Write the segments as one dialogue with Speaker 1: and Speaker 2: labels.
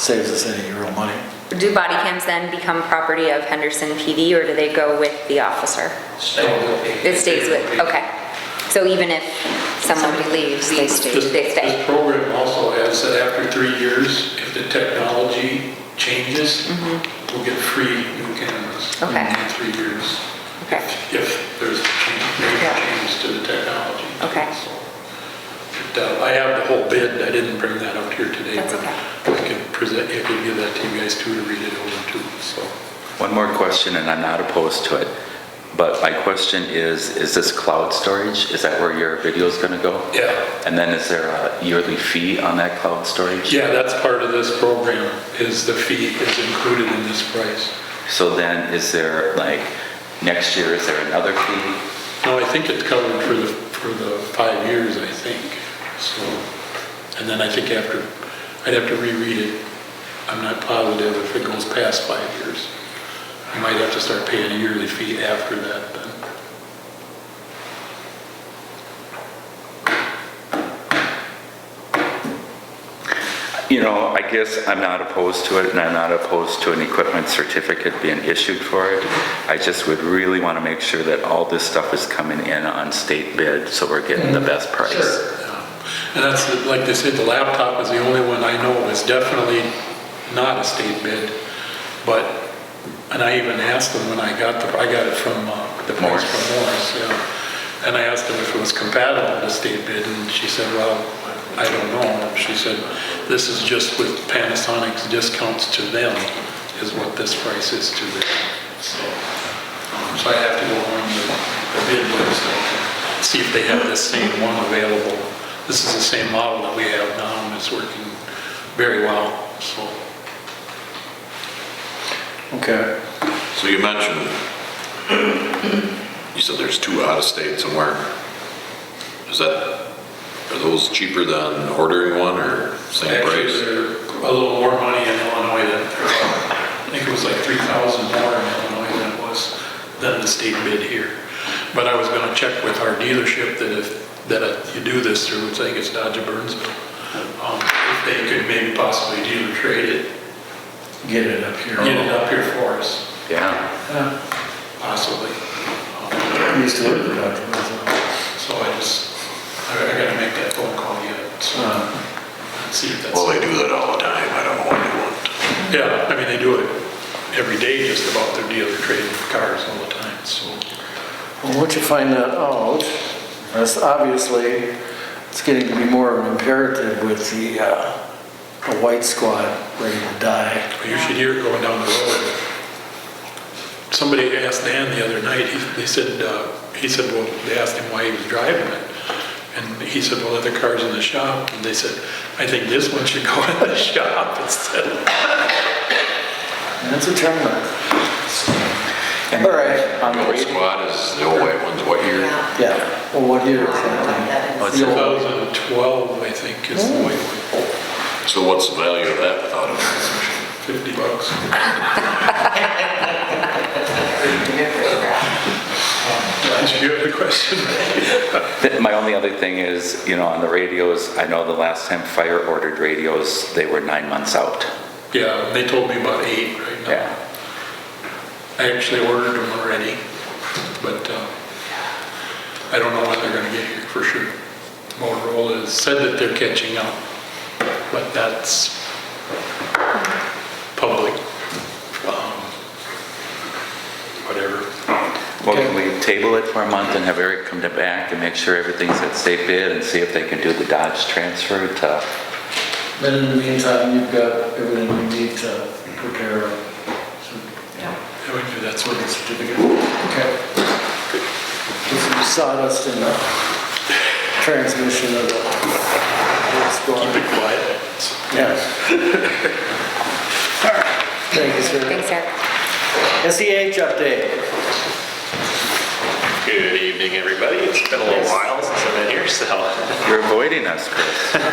Speaker 1: Saves us any real money.
Speaker 2: Do body cams then become property of Henderson PD, or do they go with the officer? It stays with, okay. So even if someone leaves, they stay?
Speaker 3: This
Speaker 2: They
Speaker 3: this
Speaker 2: stay.
Speaker 3: program also has that after three years, if the technology changes, we'll get free new cameras.
Speaker 2: Mm-hmm. Okay.
Speaker 3: In three years,
Speaker 2: Okay,
Speaker 3: if there's a change, major
Speaker 2: Yeah.
Speaker 3: change to the technology.
Speaker 2: Okay.
Speaker 3: So, but, uh, I have the whole bid, I didn't bring that up here today.
Speaker 2: That's
Speaker 3: but I can present, I can give that to you guys too to read it over too, so.
Speaker 4: One more question, and I'm not opposed to it, but my question is, is this cloud storage? Is that where your video's gonna go?
Speaker 3: Yeah.
Speaker 4: And then is there a yearly fee on that cloud storage?
Speaker 3: Yeah, that's part of this program, is the fee is included in this price.
Speaker 4: So then is there, like, next year, is there another fee?
Speaker 3: No, I think it's covered for the, for the five years, I think, so, and then I think after, I'd have to reread it. I'm not positive if it goes past five years. You might have to start paying a yearly fee after that, then.
Speaker 4: You know, I guess I'm not opposed to it, and I'm not opposed to an equipment certificate being issued for it. I just would really wanna make sure that all this stuff is coming in on state bid, so we're getting
Speaker 3: Mm-hmm.
Speaker 4: the best price.
Speaker 3: Yeah. And that's, the- like they said, the laptop is the only one I know is definitely not a state bid, but, and I even asked them when I got the, I got it from, uh, the price
Speaker 4: Morris.
Speaker 3: from Morris, yeah. And I asked them if it was compatible with state bid, and she said, well, I don't know. She said, this is just with Panasonic's discounts to them, is what this price is to them, so. um, So I have to go on the the bid website, see if they have this same one available. This is the same model that we have now, and it's working very well, so.
Speaker 1: Okay.
Speaker 5: So you mentioned, you said there's two out of state somewhere. Is that, are those cheaper than ordering one or same
Speaker 3: Actually,
Speaker 5: price?
Speaker 3: they're a little more money in Illinois than, I think it was like 3,000 more in Illinois than it was, than the state bid here. But I was gonna check with our dealership that if, that if you do this through, I think it's Dodge of Burnsville, um, if they could maybe possibly dealer trade it,
Speaker 1: Get it up here.
Speaker 3: get it up here for us,
Speaker 4: Yeah.
Speaker 1: Yeah.
Speaker 3: possibly. Um,
Speaker 1: We used to live in that.
Speaker 3: So I just, I I gotta make that phone call yet, so,
Speaker 1: Uh,
Speaker 3: see if that's.
Speaker 5: Well, they do that all the time. I don't know why they wouldn't.
Speaker 3: Yeah, I mean, they do it every day, just about their dealer trading cars all the time, so.
Speaker 1: Well, once you find that out, that's obviously, it's getting to be more of an imperative with the, uh, the white squad ready to die.
Speaker 3: But you should hear it going down the road. Somebody asked Dan the other night, he- they said, uh, he said, well, they asked him why he was driving it. And he said, well, other cars in the shop, and they said, I think this one should go in the shop instead of
Speaker 1: And it's a turnoff. All right,
Speaker 4: On the
Speaker 5: The
Speaker 4: radio,
Speaker 5: squad is the old white ones, what year?
Speaker 1: yeah, well, what year is that?
Speaker 4: what's it-
Speaker 3: 2012, I think, is the way, it went.
Speaker 5: So what's the value of that without a transmission?
Speaker 3: 50 bucks. Did you have a question?
Speaker 4: Th- My only other thing is, you know, on the radios, I know the last time Fire ordered radios, they were nine months out.
Speaker 3: Yeah, and they told me about eight right now.
Speaker 4: Yeah.
Speaker 3: I actually ordered them already, but uh, I don't know when they're gonna get here for sure. Motorola has said that they're catching up, but that's public, um, whatever.
Speaker 4: Well, can we table it for a month and have Eric come to back and make sure everything's at state bid and see if they can do the Dodge transfer to,
Speaker 1: Then in the meantime, you've got everything you need to prepare
Speaker 3: I would do that's what
Speaker 1: for the
Speaker 3: it's,
Speaker 1: certificate. Okay. With some sawdust in the transmission of the, what's
Speaker 3: keep
Speaker 1: going
Speaker 3: it quiet.
Speaker 1: Yeah. Thank you, sir.
Speaker 2: Thanks, Eric.
Speaker 1: SEH update.
Speaker 6: Good evening, everybody. It's been a little while since I've been here, so
Speaker 4: you're avoiding us, Chris.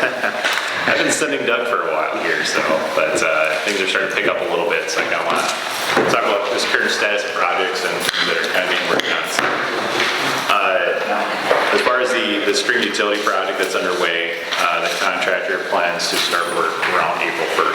Speaker 6: I've been sending Doug for a while here, so, but uh, things are starting to pick up a little bit, so I kind of want to talk about this current status of projects and things that are kind of being worked on. So, uh, As far as the, the stream utility project that's underway, uh, the contractor plans to start work around April 1st.